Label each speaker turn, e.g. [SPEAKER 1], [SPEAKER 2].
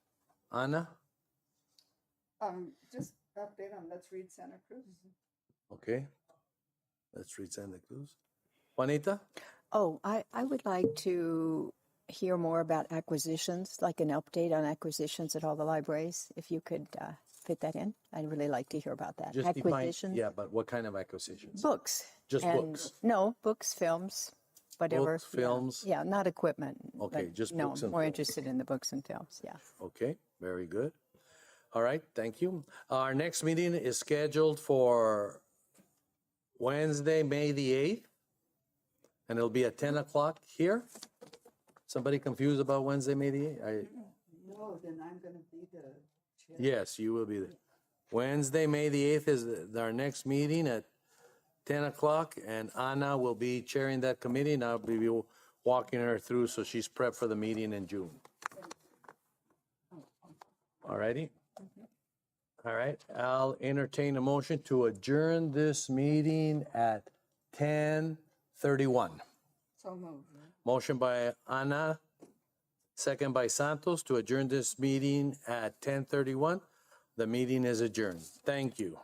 [SPEAKER 1] Anna?
[SPEAKER 2] Um, just update on Let's Read Santa Cruz.
[SPEAKER 1] Okay. Let's read Santa Cruz. Juanita?
[SPEAKER 3] Oh, I, I would like to hear more about acquisitions, like an update on acquisitions at all the libraries, if you could uh, fit that in. I'd really like to hear about that.
[SPEAKER 1] Just define.
[SPEAKER 3] acquisitions,
[SPEAKER 1] Yeah, but what kind of acquisitions?
[SPEAKER 3] books.
[SPEAKER 1] Just
[SPEAKER 3] and-
[SPEAKER 1] books.
[SPEAKER 3] No, books, films, whatever.
[SPEAKER 1] Books,
[SPEAKER 3] yeah.
[SPEAKER 1] films.
[SPEAKER 3] Yeah, not equipment.
[SPEAKER 1] Okay,
[SPEAKER 3] but
[SPEAKER 1] just
[SPEAKER 3] no,
[SPEAKER 1] books
[SPEAKER 3] I'm
[SPEAKER 1] and
[SPEAKER 3] more
[SPEAKER 1] films.
[SPEAKER 3] interested in the books and films, yeah.
[SPEAKER 1] Okay, very good. All right, thank you. Our next meeting is scheduled for Wednesday, May the 8th, and it'll be at 10 o'clock here. Somebody confused about Wednesday, May the 8th? I-
[SPEAKER 2] No, then I'm gonna be the chair.
[SPEAKER 1] Yes, you will be there. Wednesday, May the 8th is the- our next meeting at 10 o'clock, and Anna will be chairing that committee, and I'll be walking her through so she's prepped for the meeting in June. All righty? All right, I'll entertain a motion to adjourn this meeting at 10:31.
[SPEAKER 2] So moved.
[SPEAKER 1] Motion by Anna, second by Santos to adjourn this meeting at 10:31. The meeting is adjourned. Thank you.